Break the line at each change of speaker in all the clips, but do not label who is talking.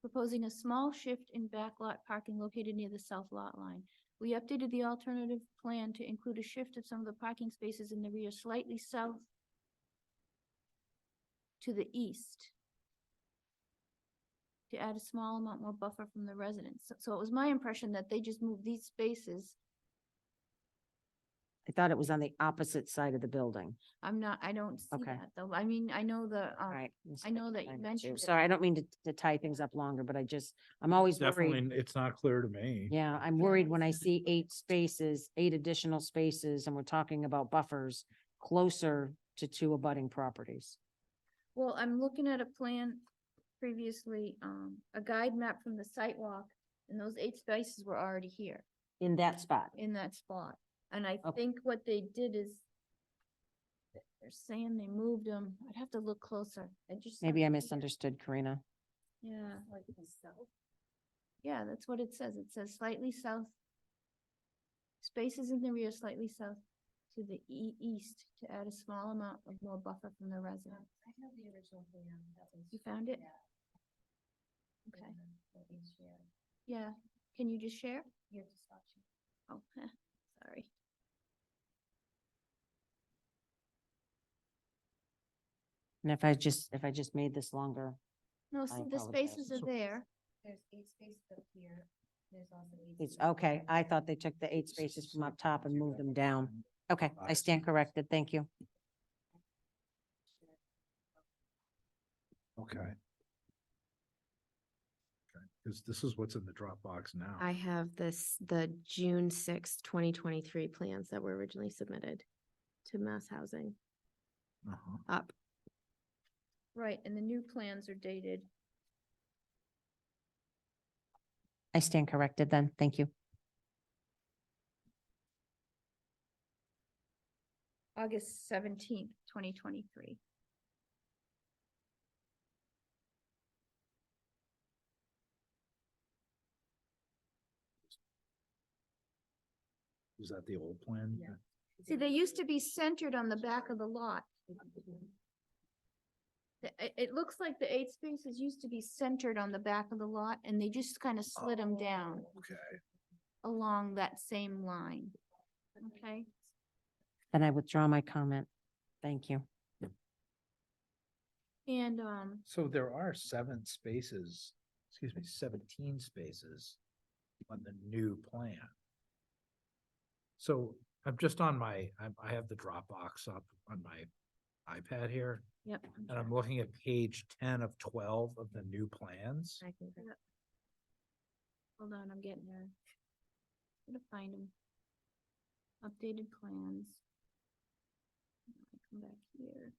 proposing a small shift in backlot parking located near the south lot line. We updated the alternative plan to include a shift of some of the parking spaces in the rear slightly south to the east to add a small amount more buffer from the residents. So- So it was my impression that they just moved these spaces.
I thought it was on the opposite side of the building.
I'm not, I don't see
Okay.
that though. I mean, I know the,
All
uh,
right. I'm
I know that you
sorry,
mentioned it.
Sorry, I don't mean to, to tie things up longer, but I just, I'm always worried.
Definitely, it's not clear to me.
Yeah, I'm
Yeah,
worried when I
it's-
see eight spaces, eight additional spaces, and we're talking about buffers closer to two abutting properties.
well, I'm looking at a plan previously, um, a guide map from the sidewalk. And those eight spaces were already here
In that spot.
in that spot. And I
Okay.
think what they did is they're saying they moved them. I'd have to look closer. I just.
Maybe I
misunderstood.
misunderstood, Karina.
Yeah. Like south? Yeah, that's what it says. It says slightly south. Spaces in the rear slightly south to the e- east to add a small amount of more buffer from the residents. I have the original plan that was. You found it? Okay. Yeah, can you just share? You have to stop Oh, heh, sorry.
And if I just, if I just made this longer,
No, see, the
apologize.
spaces are there.
There's eight spaces up here, there's also eight.
it's
spaces
okay.
down
I
here.
thought they took the eight spaces from up top and moved them down. Okay, I
I
stand corrected. Thank you.
Okay. Because this is what's in the Dropbox now.
I have this, the June sixth, twenty twenty-three plans that were originally submitted to mass housing
Uh-huh.
up.
Right, and the new plans are dated.
I stand corrected then. Thank you.
August seventeenth, twenty twenty-three.
Is that the old plan?
Yeah.
See, they used to be centered on the back of the lot. The- It, it looks like the eight spaces used to be centered on the back of the lot and they just kind of slid them down
Okay.
along that same line. Okay,
Then I withdraw my comment. Thank you.
and, um,
So there are seven spaces, excuse me, seventeen spaces on the new plan. So I'm just on my, I'm- I have the Dropbox up on my iPad here,
yep.
and I'm looking at page ten of twelve of the new plans.
I can go-
Hold on, I'm getting there. Gonna find them. Updated plans. Come back here.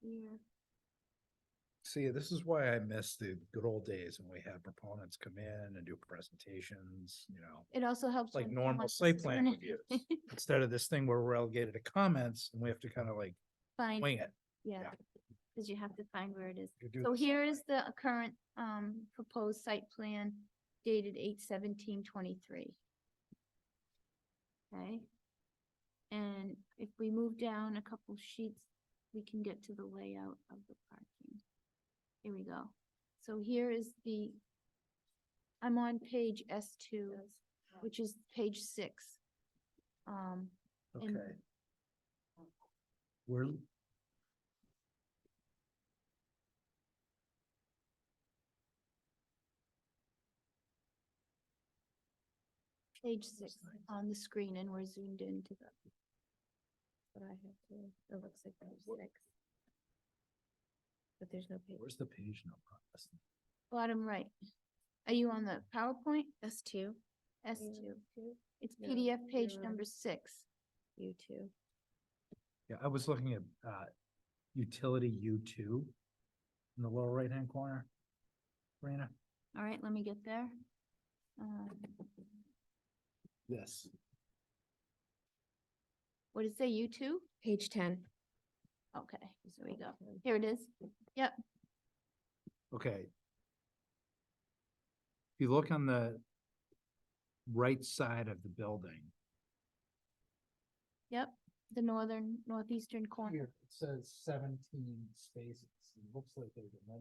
Here.
See, this is why I miss the good old days when we had proponents come in and do presentations, you know,
It also helps.
like
when someone
normal
just
site
is
plan
gonna-
reviews. Instead of this thing where we're relegated to comments and we have to kind of like
Find,
wing it.
yeah, because you have to find where it is.
You do
So
this.
here is the current, um, proposed site plan dated eight seventeen twenty-three. Okay? And if we move down a couple sheets, we can get to the layout of the parking. Here we go. So here is the, I'm on page S two, which is page six. Um, and-
Okay. We're.
Page six on the screen and we're zoomed into the.
But I have to, it looks like there's six. But there's no page.
Where's the page Oh, number?
Bottom right. Are you on the PowerPoint?
S two,
S
Yeah.
two. It's
No,
PDF page
you're on.
number six.
U two.
Yeah, I was looking at, uh, utility U two in the lower right-hand corner. Rena?
All right, let me get there. Um,
Yes.
What did it say, U two?
Page ten.
Okay, there we go. Here it is.
Okay. If you look on the right side of the building.
Yep, the northern, northeastern corner.
it says seventeen spaces. It looks like there's a